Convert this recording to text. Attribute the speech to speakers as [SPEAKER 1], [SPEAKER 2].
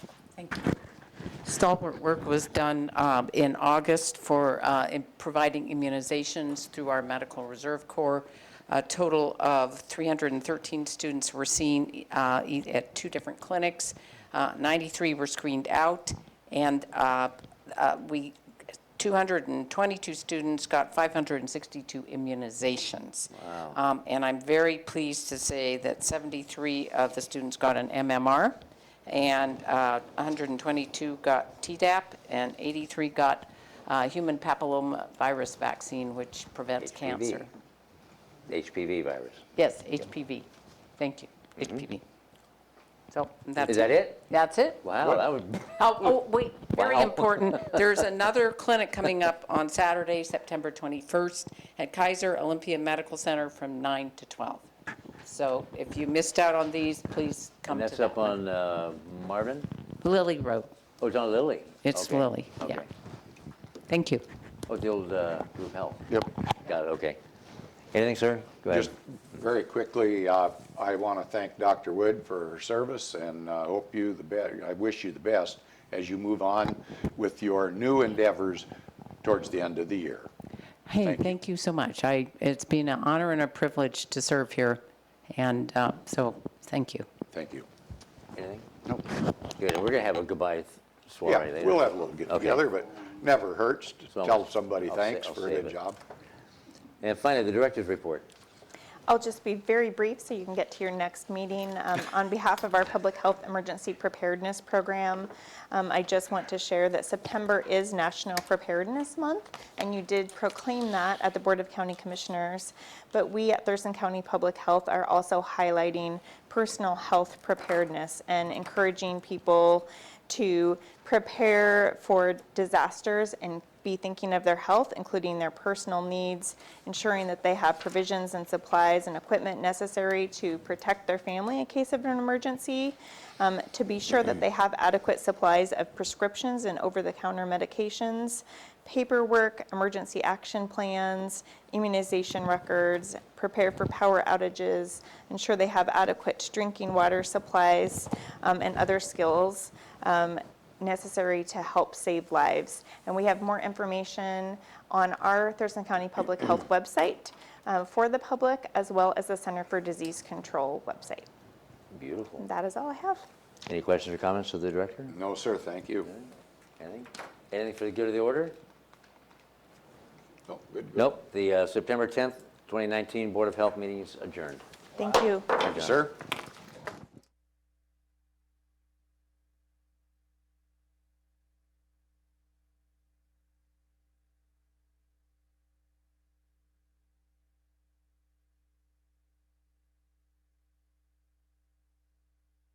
[SPEAKER 1] Thank you. Stalwart work was done um, in August for uh, in providing immunizations through our Medical Reserve Corps. A total of 313 students were seen uh, e- at two different clinics. Uh, 93 were screened out, and uh, uh, we 222 students got 562 immunizations. Wow. And I'm very pleased to say that 73 of the students got an MMR, and uh, 122 got Tdap, and 83 got uh, human papillomavirus vaccine, which prevents
[SPEAKER 2] HPV.
[SPEAKER 1] cancer.
[SPEAKER 2] HPV virus.
[SPEAKER 1] Yes, HPV. Thank you, HPV. So that's
[SPEAKER 2] Mm-hmm. Is that it?
[SPEAKER 1] That's it.
[SPEAKER 2] Wow, that would,
[SPEAKER 1] Oh, oh, wait, very
[SPEAKER 2] Wow.
[SPEAKER 1] important. There's another clinic coming up on Saturday, September 21st, at Kaiser Olympia Medical Center from 9 to 12. So if you missed out on these, please come
[SPEAKER 2] and
[SPEAKER 1] to
[SPEAKER 2] that's up
[SPEAKER 1] that one.
[SPEAKER 2] on uh, Marvin?
[SPEAKER 1] Lily Road.
[SPEAKER 2] Oh, it's on Lilly?
[SPEAKER 1] It's
[SPEAKER 2] Okay,
[SPEAKER 1] Lily, yeah.
[SPEAKER 2] okay.
[SPEAKER 1] Thank you.
[SPEAKER 2] Oh, the old uh, group health.
[SPEAKER 3] Yep.
[SPEAKER 2] Got it, okay. Anything, sir? Go ahead.
[SPEAKER 3] Just very quickly, uh, I want to thank Dr. Wood for her service and uh, hope you the best, I wish you the best as you move on with your new endeavors towards the end of the year.
[SPEAKER 1] Hey,
[SPEAKER 3] Thank you.
[SPEAKER 1] thank you so much. I, it's been an honor and a privilege to serve here, and uh, so, thank you.
[SPEAKER 3] Thank you.
[SPEAKER 2] Anything?
[SPEAKER 3] Nope.
[SPEAKER 2] Good, we're gonna have a goodbye soiree
[SPEAKER 3] Yeah,
[SPEAKER 2] later.
[SPEAKER 3] we'll have a little
[SPEAKER 2] Okay.
[SPEAKER 3] get-together, but never hurts to
[SPEAKER 2] So
[SPEAKER 3] tell somebody
[SPEAKER 2] I'll sa-
[SPEAKER 3] thanks
[SPEAKER 2] I'll
[SPEAKER 3] for a
[SPEAKER 2] save
[SPEAKER 3] good
[SPEAKER 2] it.
[SPEAKER 3] job.
[SPEAKER 2] And finally, the director's report.
[SPEAKER 4] I'll just be very brief so you can get to your next meeting. Um, On behalf of our Public Health Emergency Preparedness Program, um, I just want to share that September is National Preparedness Month, and you did proclaim that at the Board of County Commissioners. But we at Thurston County Public Health are also highlighting personal health preparedness and encouraging people to prepare for disasters and be thinking of their health, including their personal needs, ensuring that they have provisions and supplies and equipment necessary to protect their family in case of an emergency, um, to be sure that they have adequate supplies of prescriptions and over the counter medications, paperwork, emergency action plans, immunization records, prepare for power outages, ensure they have adequate drinking water supplies, um, and other skills um, necessary to help save lives. And we have more information on our Thurston County Public Health website uh, for the public, as well as the Center for Disease Control website.
[SPEAKER 2] Beautiful.
[SPEAKER 4] And that is all I have.
[SPEAKER 2] Any questions or comments of the director?
[SPEAKER 3] No, sir, thank you.
[SPEAKER 2] Anything? Anything for the good of the order?
[SPEAKER 3] Oh, Good. good.
[SPEAKER 2] Nope. The uh, September 10th, 2019 Board of Health meeting is adjourned.
[SPEAKER 4] Thank you.
[SPEAKER 3] Thank you, sir.